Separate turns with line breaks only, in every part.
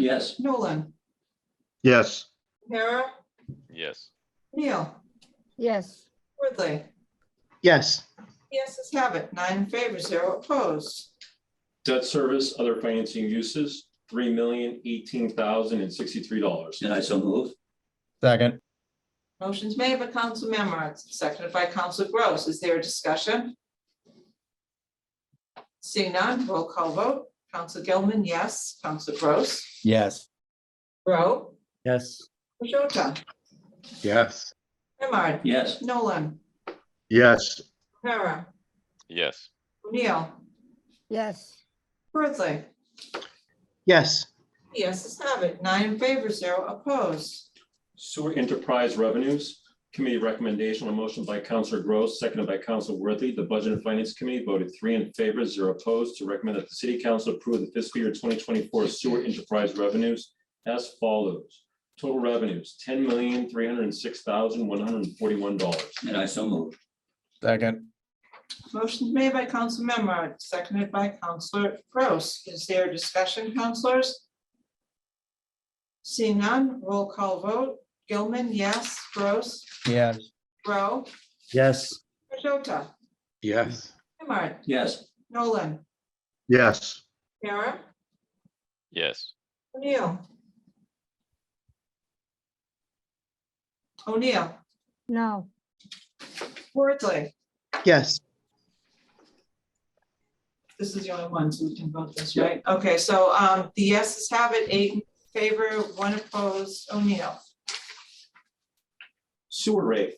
Yes.
Nolan,
Yes,
O'Hara,
Yes.
Neil,
yes,
Worthly.
yes,
Yes, let's have it. Nine in favor, zero opposed.
Debt service, other financing uses, three million eighteen thousand and sixty-three dollars.
And I so move.
second,
Motion's made by Council Memard, seconded by Council Gross. Is there a discussion? Seeing none, roll call vote. Council Gilman, yes. Council Gross.
yes,
Grow.
yes,
Majota.
yes,
Memard.
Yes.
Nolan.
yes,
O'Hara.
Yes.
O'Neill.
yes,
Worthly.
yes,
Yes, let's have it. Nine in favor, zero opposed.
Sewer enterprise revenues, committee recommendation on motion by Counselor Gross, seconded by Counselor Worthy. The Budget and Finance Committee voted three in favor, zero opposed, to recommend that the city council approve the fiscal year twenty twenty-four sewer enterprise revenues as follows. Total revenues, ten million, three hundred and six thousand, one hundred and forty-one dollars.
And I so move.
second,
Motion made by Council Memard, seconded by Councilor Gross. Is there discussion, councilors? Seeing none, roll call vote. Gilman, yes. Gross,
yes,
Grow,
yes,
Majota,
yes,
Memard,
Yes.
Nolan,
yes,
Kara,
Yes.
O'Neill. O'Neill,
no,
Worthly.
yes,
This is the only one, so we can vote this, right? Okay, so um, the yeses have it, eight in favor, one opposed, O'Neill.
Sewer rate.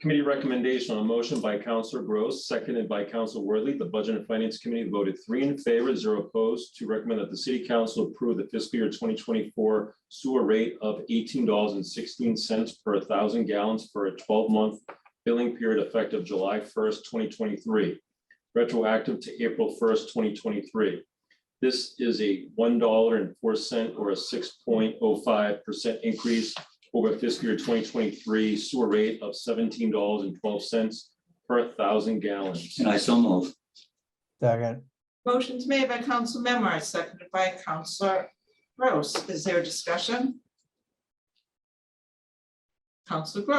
Committee recommendation on a motion by Counselor Gross, seconded by Counselor Worthy. The Budget and Finance Committee voted three in favor, zero opposed, to recommend that the city council approve the fiscal year twenty twenty-four sewer rate of eighteen dollars and sixteen cents per thousand gallons for a twelve-month billing period effective July first, twenty twenty-three, retroactive to April first, twenty twenty-three. This is a one dollar and four cent or a six point oh five percent increase over fiscal year twenty twenty-three sewer rate of seventeen dollars and twelve cents per thousand gallons.
And I so move.
second,
Motion's made by Council Memard, seconded by Councilor Gross. Is there discussion? Council Grow.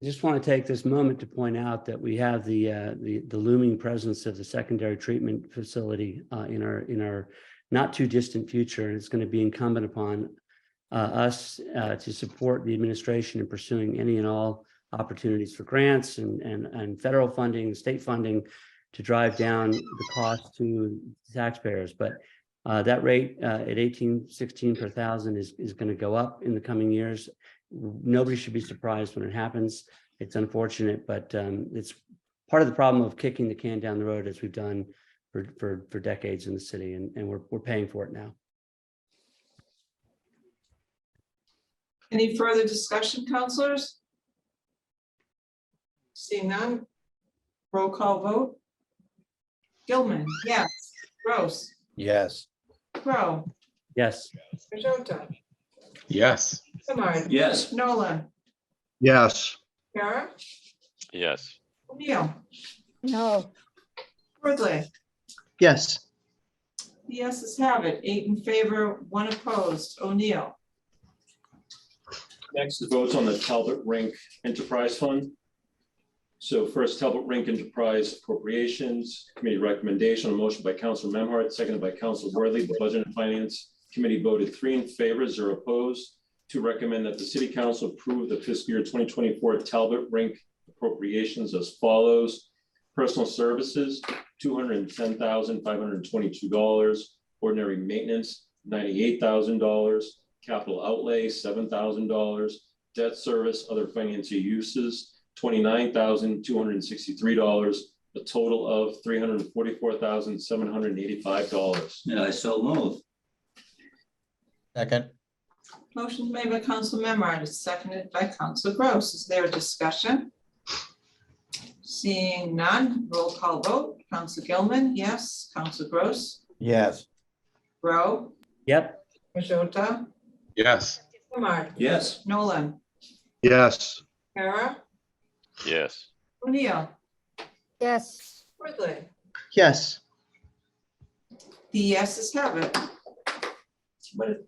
I just want to take this moment to point out that we have the, uh, the the looming presence of the secondary treatment facility uh, in our, in our not too distant future. And it's going to be incumbent upon uh, us uh, to support the administration in pursuing any and all opportunities for grants and, and, and federal funding, state funding to drive down the cost to taxpayers. But uh, that rate uh, at eighteen sixteen per thousand is, is going to go up in the coming years. Nobody should be surprised when it happens it's unfortunate, but um, it's part of the problem of kicking the can down the road as we've done for for for decades in the city, and and we're we're paying for it now.
Any further discussion, councilors? Seeing none, roll call vote. Gilman, yes. Gross,
yes,
Grow,
Yes,
Majota,
yes,
Memard,
Yes.
Nolan,
yes,
Kara,
Yes.
O'Neill,
no,
Worthly.
yes.
The yeses have it, eight in favor, one opposed, O'Neill.
Next is votes on the Talbot Rink Enterprise Fund. So first Talbot Rink Enterprise appropriations, committee recommendation, a motion by Council Memhard, seconded by Council Worthy. The Budget and Finance Committee voted three in favor, zero opposed, to recommend that the city council approve the fiscal year twenty twenty-four Talbot Rink appropriations as follows. Personal services, two hundred and ten thousand, five hundred and twenty-two dollars. Ordinary maintenance, ninety-eight thousand dollars capital outlay, seven thousand dollars, debt service, other financial uses, twenty-nine thousand, two hundred and sixty-three dollars, a total of three hundred and forty-four thousand, seven hundred and eighty-five dollars.
And I so move.
second,
Motion made by Council Memard, it's seconded by Council Gross. Is there a discussion? Seeing none, roll call vote. Council Gilman, yes. Council Gross,
yes,
Grow,
yep,
Majota,
yes,
Memard,
Yes.
Nolan,
yes,
Kara,
Yes.
O'Neill,
yes.
Worthly.
Yes.
The yeses have it. what is